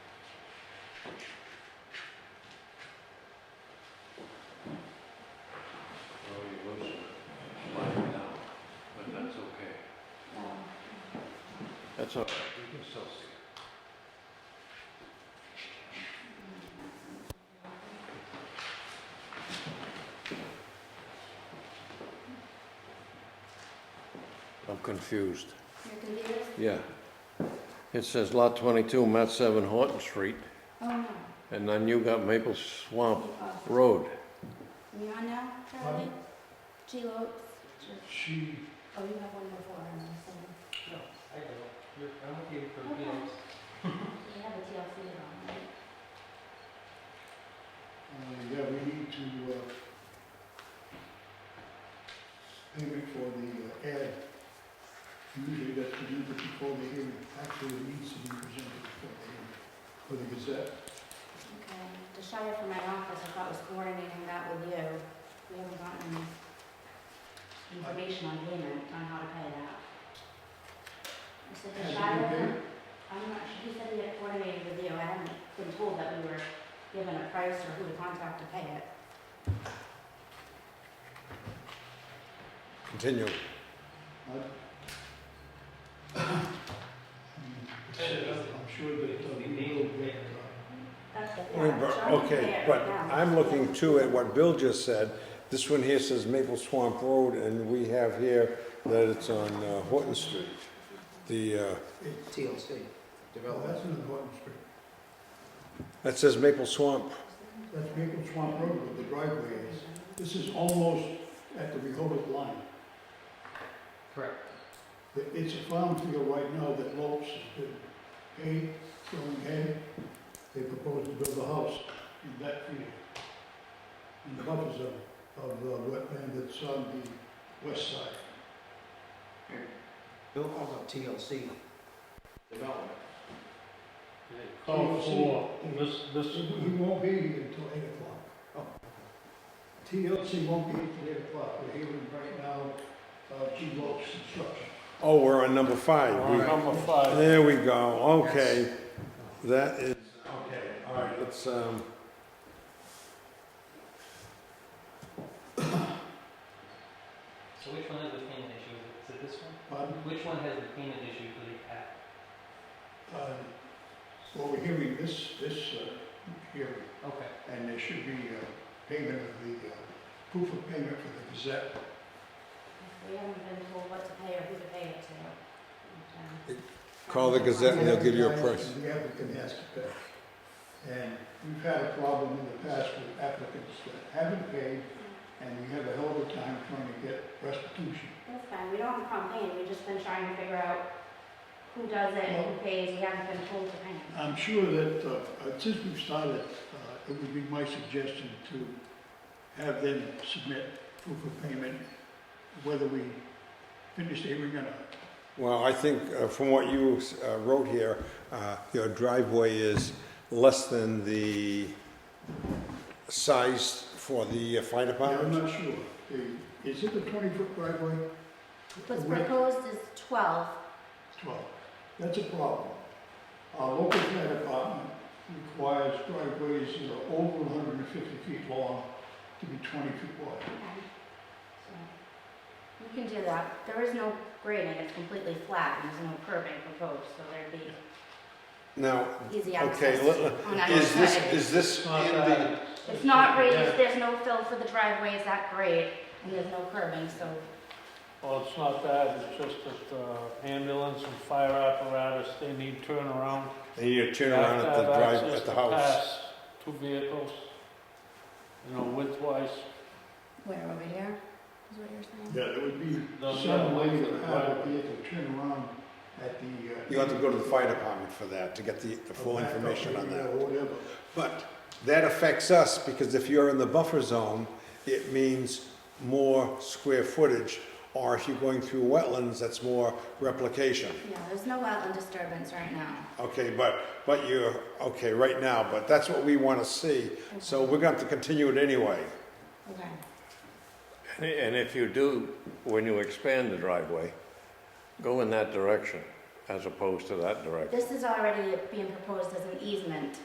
That's all right, we can still see it. I'm confused. Your computer? Yeah. It says lot twenty-two, Matt Seven Horton Street, Oh, no. and then you got Maple Swamp You are. Road. You're on now, Charlie? G Lopes? She, Oh, you have one before, I'm assuming. No, I don't. You're- I'm with you for meals. You have a TLC on, right? uh, yeah, we need to, uh, payment for the uh, ad. Usually that's to do before the hearing, actually it needs to be presented before the hearing, for the Gazette. Okay. The Shire from my office, I thought was coordinating that with you. We haven't gotten information on payment, on how to pay that. I said the Has it been Shire, paid? I'm not sure, he said he had coordinated with you. I haven't been told that we were given a price or who to contact to pay it. Continue. I- I'm sure that uh, we will get, uh, That's the. Wait, but- Okay, but I'm looking too at what Bill just said. This one here says Maple Swamp Road, and we have here that it's on uh, Horton Street. The, uh, TLC, well, that's an important street. that says Maple Swamp. That's Maple Swamp Road where the driveway is. This is almost at the Rehoboth line. Correct. It- It's a farm field right now that Lopes has been hay, growing hay. They propose to build a house in that field. In the buffer zone of the wetland that's on the west side. Bill calls it TLC. Development. Call for This, this, He won't be here until eight o'clock. TLC won't be here till eight o'clock. We're hearing right now, uh, G. Lopes Construction. Oh, we're on number we're five. number five. There we go, okay. That is, okay, all right, let's, um, So which one has the payment issue? Is it this one? Pardon? Which one has the payment issue for the app? Uh, Well, we're hearing this, this uh, hearing, Okay. and there should be uh, payment of the, uh, proof of payment for the Gazette. We haven't been told what to pay or who to pay it to. Okay. Call the Gazette and they'll give you a price. The applicant has to pay. And we've had a problem in the past with applicants that haven't paid, and we have a hell of a time trying to get restitution. That's fine, we don't have a problem paying, we've just been trying to figure out who does it, who pays, we haven't been told to pay. I'm sure that, uh, since we've started, uh, it would be my suggestion to have them submit proof of payment, whether we finish the hearing or not. well, I think uh, from what you uh, wrote here, uh, your driveway is less than the size for the uh, fire Yeah, I'm department? not sure. The- Is it a twenty-foot driveway? What's Wait, proposed is twelve, Twelve. That's a problem. Our local fire department requires driveways that are over hundred and fifty feet long to be twenty feet wide. okay. So, You can do that, there is no grading, it's completely flat, and there's no curbing proposed, so there'd be Now, easy Okay, access. let- on either is this, side. is this in uh, the, It's not raised, there's no fill for the driveway, it's that grade, and there's no curbing, so Well, it's not that, it's just that uh, ambulance and fire apparatus, they need turnaround. and you turn around at the Have to have drive, access at the to house? pass Two vehicles, you know, widthwise. where, over here, is what you're saying? Yeah, it would be The- some way to have a vehicle turn around at the. uh, You have to go to the fire department for that, to get the, the full back up information on area that. or Whatever. But that affects us, because if you're in the buffer zone, it means more square footage, or if you're going through wetlands, that's more replication. Yeah, there's no wetland disturbance right now. Okay, but, but you're, okay, right now, but that's what we wanna see, so we're gonna have to continue it anyway. Okay. And if you do, when you expand the driveway, go in that direction as opposed to that direction. This is already being proposed as an easement